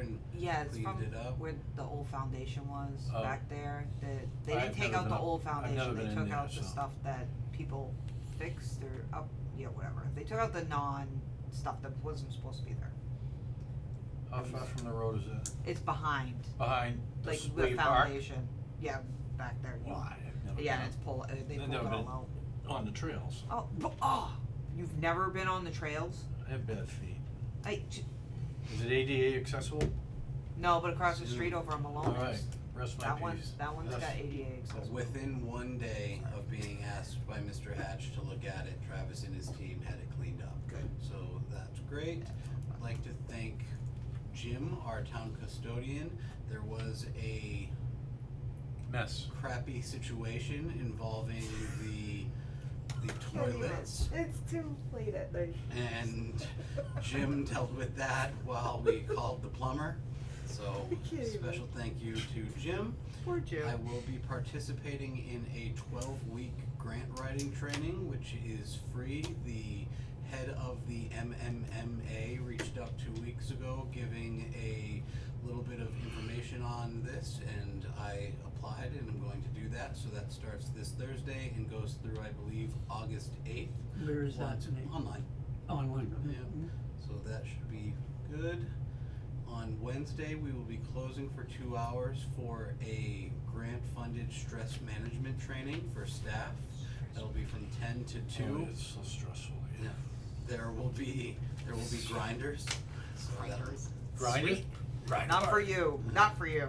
and Yeah, it's cleaned from it up? where the old foundation was Oh. back there, that, they I've didn't take never out been the up- I've old never foundation, they been in took there, out the so. stuff that people fixed or up, yeah, whatever, they took out the non stuff that wasn't supposed to be there. how far from the road is it? It's behind, Behind the like Sway the Park? foundation, yeah, back there, you- Why, I've never yeah, been and it's pull, uh, they I've pulled it never all been. out. up on the trails, Oh, but, oh, you've never been on the trails? I have bad feet, I, j- is it ADA accessible? no, but across the Dude. street over on Malone, Alright, rest my that one's, peace. that one's Yes. got ADA accessible. Within one day of being asked by Mr. Hatch to look at it, Travis and his team had it cleaned up. Good. So that's great. I'd like to thank Jim, our town custodian. There was a Mess, crappy situation involving the the toilets. It's too late at night. And Jim dealt with that while we called the plumber. So I can't even. special thank you to Jim. Poor Jim. I will be participating in a 12 week grant writing training, which is free. The head of the MMMA reached out two weeks ago giving a little bit of information on this, and I applied and I'm going to do that. So that starts this Thursday and goes through, I believe, August 8th. Where is that Lots of tonight? Online. Online, okay. Yeah. So that should be good. On Wednesday, we will be closing for two hours for a grant-funded stress management training for staff. That'll be from ten to oh, two. it's so stressful, yeah. Yeah. There will be, there will be grinders, so that'll. Grind it? Grind Not for hard. you. Not for you.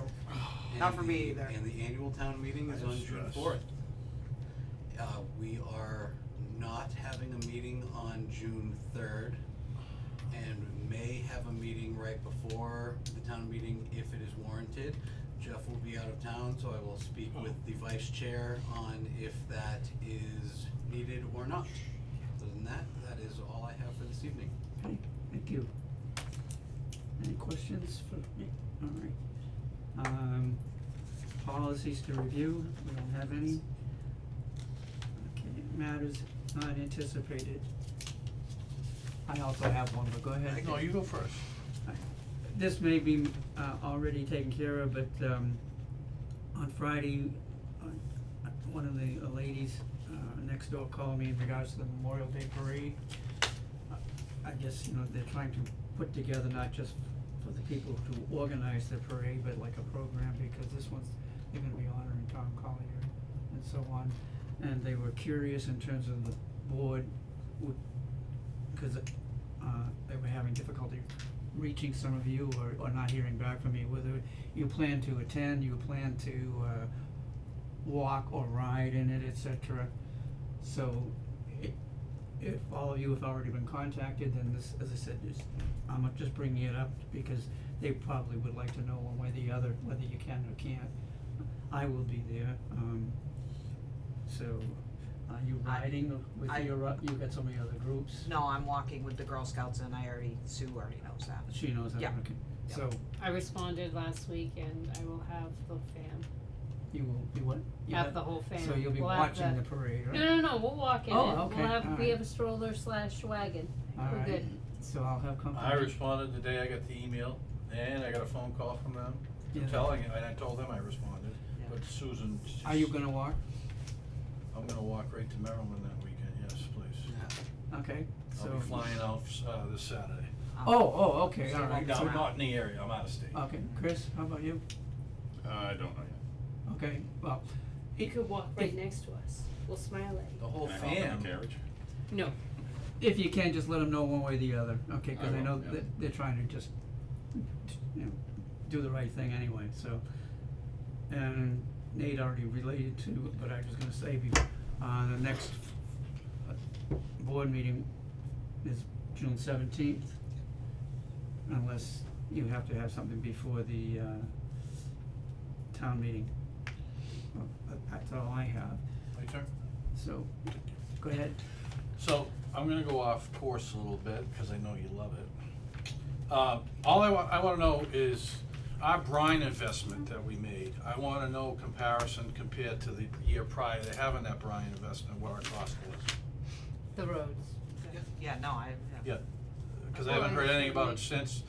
Not and for me the- either. And the annual town meeting is I on have June stress. fourth. Uh, we are not having a meeting on June third. And may have a meeting right before the town meeting if it is warranted. Jeff will be out of town, so I will speak Oh. with the vice chair on if that is needed or not. Other than that, that is all I have for this evening. Okay, thank you. Any questions for me? Alright. Um, policies to review, we don't have any. Okay, matters not anticipated. I also have one, but go ahead. No, you go first. This may be, uh, already taken care of, but, um, on Friday, uh, one of the ladies, uh, next door called me in regards to the Memorial Day Parade. Uh, I guess, you know, they're trying to put together not just for the people who organize the parade, but like a program, because this one's, they're gonna be honoring Tom Collier and so on. And they were curious in terms of the board, would, cause uh, they were having difficulty reaching some of you or, or not hearing back from you, whether you plan to attend, you plan to, uh, walk or ride in it, et cetera. So, it, if all of you have already been contacted, then this, as I said, is, I'm just bringing it up because they probably would like to know one way or the other, whether you can or can't. I will be there, um, so, are you I- riding with I- your, uh, you got so many other groups? No, I'm walking with the Girl Scouts, and I already Sue already knows that. She knows that, Yeah. okay, Yeah. so, I responded last week and I will have the fam, you will, you what? You have the whole fam. So you'll be We'll have watching the parade, right? No, no, no, we'll walk in it, Oh, okay, we'll have, alright. we have a stroller slash wagon, we're Alright, good. so I'll have company. I responded the day I got the email, and I got a phone call from them Yeah. telling, and I told them I responded, Yeah. but Susan. Are you gonna walk? I'm gonna walk right to Maryland that weekend, yes, please. Okay, so. I'll be flying out, uh, this Saturday. Um, Oh, oh, okay, So all you right. won't No, so- Wow. not in the area, I'm out of state. Okay, Chris, how about you? Uh, I don't know yet. Okay, well, You if, could walk right right next to us, we'll smile at The whole Can I hop in the fam, carriage? you. No, if you can, just let them know one way or the other, okay, cause I I know will, yeah. that they're trying to just, you know, do the right thing anyway, so. And Nate already related to, but I was gonna say, be- uh, the next uh, board meeting is June seventeenth. Unless you have to have something before the, uh, town meeting. Well, that- That's all I have. my turn. So, go ahead. So, I'm gonna go off course a little bit, cause I know you love it. Uh, all I wa- I wanna know is our brine investment that we made, I wanna know comparison compared to the year prior to having that brine investment, what our cost was. the roads. Yeah, no, I. Yeah, cause I haven't heard anything about it since,